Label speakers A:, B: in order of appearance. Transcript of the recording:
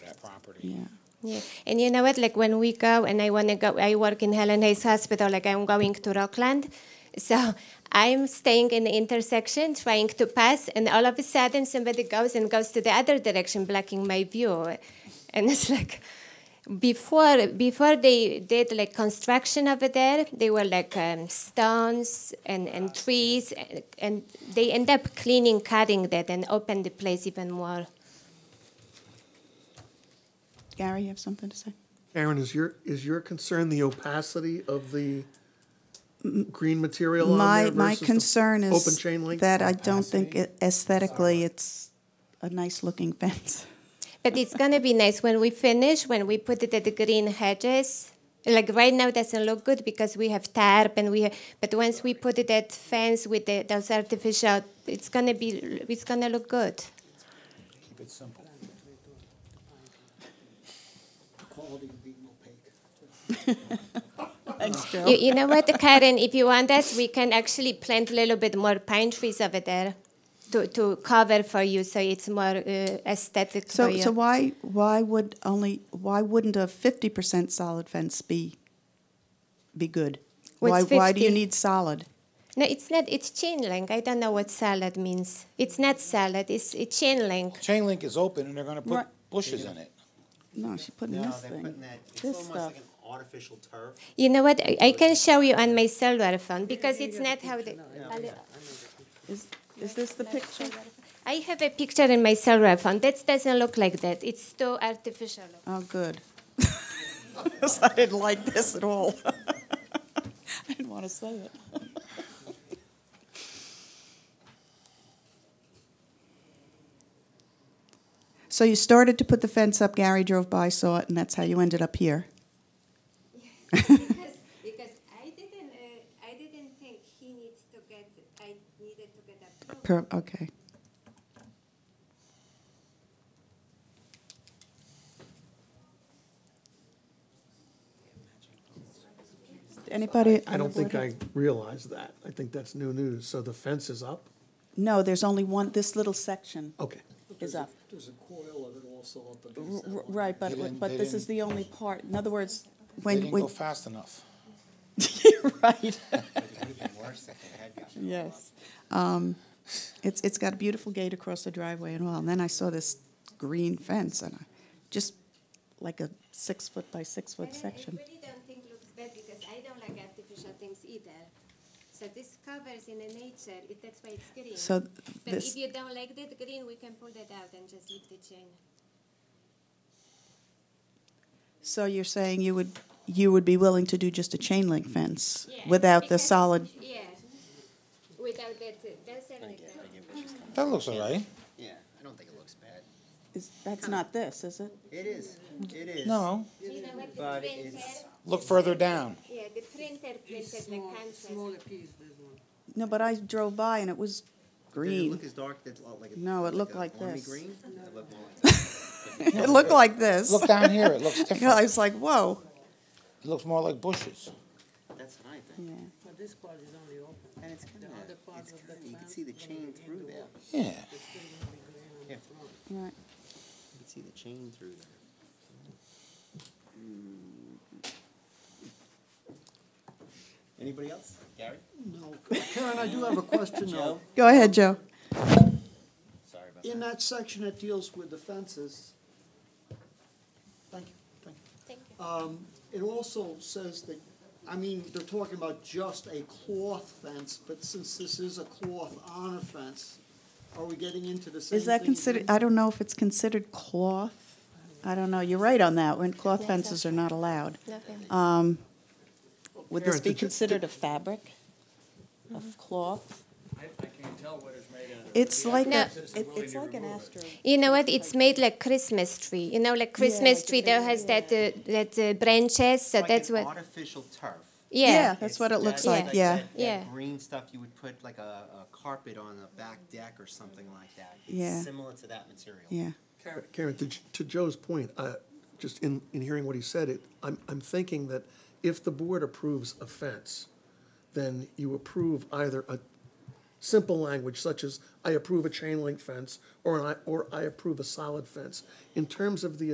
A: property.
B: Yeah.
C: Yeah. And you know what? Like when we go and I want to go, I work in Helen Hayes Hospital, like I'm going to Rockland. So I'm staying in the intersection trying to pass, and all of a sudden somebody goes and goes to the other direction, blocking my view. And it's like, before before they did like construction over there, they were like um, stones and, and trees, and, and they end up cleaning, cutting that, and open the place even more.
B: Gary, you have something to say?
D: Aaron, is your, is your concern the opacity of the green material on
B: My,
D: there
B: my
D: versus the
B: concern is
D: open chain link?
B: that I don't think it- aesthetically it's a nice looking fence.
C: But it's gonna be nice when we finish, when we put it at the green hedges. Like right now, it doesn't look good because we have tarp and we. Have, but once we put it at fence with the, those artificial, it's gonna be. It's gonna look good.
A: Keep it simple.
E: quality being opaque.
B: Thanks, Joe.
C: You, you know what, Karen? If you want us, we can actually plant a little bit more pine trees over there, to, to cover for you, so it's more uh, aesthetic for
B: So,
C: you.
B: so why, why would only, why wouldn't a fifty percent solid fence be, be good?
C: Well,
B: Why,
C: it's
B: why do you
C: 50.
B: need solid?
C: no, it's not. It's chain link. I don't know what salad means. It's not salad. It's, it's chain link.
A: Chain link is open and they're gonna put
B: Right.
A: bushes in it.
B: No, she's putting
E: No,
B: this
E: they're
B: thing.
E: putting that, it's
B: This
E: almost
B: stuff.
E: like an artificial turf.
C: You know what? I, I can show you on my cellular phone because it's not how the.
B: Is, is this the picture?
C: I have a picture in my cellular phone. That doesn't look like that. It's too artificial.
B: Oh, good. 'Cause I didn't like this at all. I didn't want to say it. So you started to put the fence up, Gary drove by, saw it, and that's how you ended up here.
C: because, because I didn't uh, I didn't think he needs to get I needed to get approved.
B: Per, okay. Anybody? on
D: I don't
B: the board
D: think I realized that. I think that's new news. So the fence is up?
B: No, there's only one, this little section
A: Oh,
D: Okay.
B: is up.
E: There's a coil of it also up
B: R- r- Right,
A: They
B: but,
A: didn't-
B: but
A: they
B: this is
A: didn't-
B: the only part, in other words,
A: They
B: when,
A: didn't go
B: when,
A: fast enough.
B: right,
E: worse if they had gotten
B: yes. Um, It's, it's got a beautiful gate across the driveway and all, and then I saw this green fence and I, just like a six foot by six foot section.
C: I really don't think looks bad because I don't like artificial things either. So this covers in the nature. It, that's why it's green.
B: So th-
C: but
B: this,
C: if you don't like that green, we can pull that out and just leave the chain.
B: so you're saying you would, you would be willing to do just a chain link fence
C: Yeah,
B: without the
C: because-
B: solid,
C: Yeah. Without that, uh, that's everything.
A: That looks all right.
E: Yeah, I don't think it looks bad.
B: is, that's not this, is it?
E: It is, it is.
A: No,
C: You know what? The
E: But
C: printer,
E: it's-
A: look further down.
C: yeah, the printer printed the contrast.
B: No, but I drove by and it was
E: Did it
B: green.
E: look as dark, that, like? a-
B: No, it looked
E: a
B: like
E: army
B: this.
E: green? It looked more like-
B: It looked like this.
A: Look down here, it looks
B: You know,
A: different.
B: I was like, whoa.
A: It looks more like bushes.
E: That's what I think.
B: Yeah.
F: But this part is only open.
E: And it's kinda,
F: other part
E: it's
F: of the
E: kinda, you can
F: plant
E: see the chain through there.
A: Yeah,
E: Yeah,
B: Right.
E: you can see the chain through there. Mm. Anybody else? Gary?
F: No, Karen, I do have a question though.
B: Go ahead, Joe.
E: Sorry about
F: In that section that deals with the fences, thank you, thank you.
C: Thank you.
F: Um, it also says that, I mean, they're talking about just a cloth fence, but since this is a cloth on a fence, are we getting into the same thing?
B: Is that considered, I don't know if it's considered cloth. I don't know. You're right on that one. Cloth fences are not allowed.
C: Nothing.
B: Um, would this
D: Karen,
B: be
D: did you-
B: considered a fabric of cloth?
G: I, I can't tell what it's made out of.
B: Mm-hmm. It's like
C: No.
B: a, it- it's like an astro.
C: You know what? It's made like Christmas tree. You know, like Christmas
B: like a
C: tree that has
B: big-
C: that uh, that uh, branches. So
E: Like
C: that's
E: an
C: what.
E: Artificial turf.
C: Yeah.
B: That's
E: It's
B: what it
E: that-
B: looks
E: that-
C: like,
E: that-
B: yeah.
E: that- that
C: Yeah.
E: Green stuff, you would put like a, a carpet on the back deck or something like that. It's
B: Yeah.
E: Similar to that material.
B: Yeah.
D: Karen, to, to Joe's point, uh, just in, in hearing what he said, it, I'm, I'm thinking that if the board approves a fence, then you approve either a simple language such as, I approve a chain link fence, or I, or I approve a solid fence. In terms of the